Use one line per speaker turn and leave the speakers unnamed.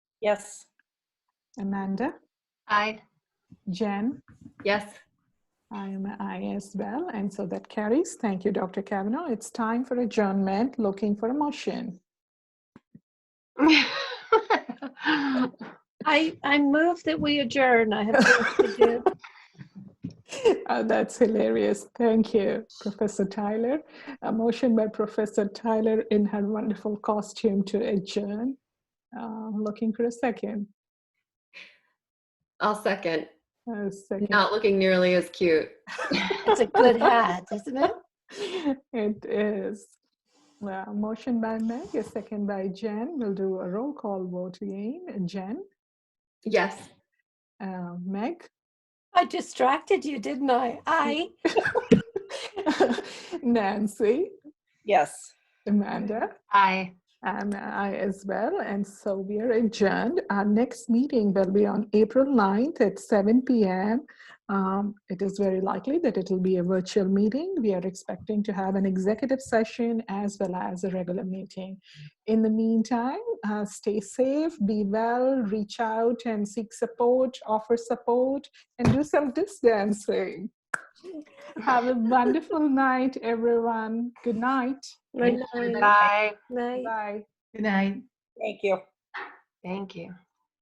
Yes.
Amanda,
Aye.
Jen,
Yes.
I am an aye as well, and so that carries. Thank you, Dr. Kavanaugh. It's time for adjournment, looking for a motion.
I, I move that we adjourn. I have things to do.
Oh, that's hilarious. Thank you, Professor Tyler. A motion by Professor Tyler in her wonderful costume to adjourn. Uh, looking for a second.
I'll second.
A second.
Not looking nearly as cute.
It's a good hat, isn't it?
It is. Uh, motion by Meg, a second by Jen. We'll do a roll call vote again. Jen,
Yes.
uh, Meg,
I distracted you, didn't I? I.
Nancy,
Yes.
Amanda.
Aye.
And I as well. And so we are adjourned. Our next meeting will be on April 9th at 7 p.m. Um, it is very likely that it will be a virtual meeting. We are expecting to have an executive session as well as a regular meeting. In the meantime, uh, stay safe, be well, reach out and seek support, offer support, and do some distancing. Have a wonderful night, everyone. Good night.
Right.
Bye.
Night.
Bye.
Good night.
Thank you.
Thank you.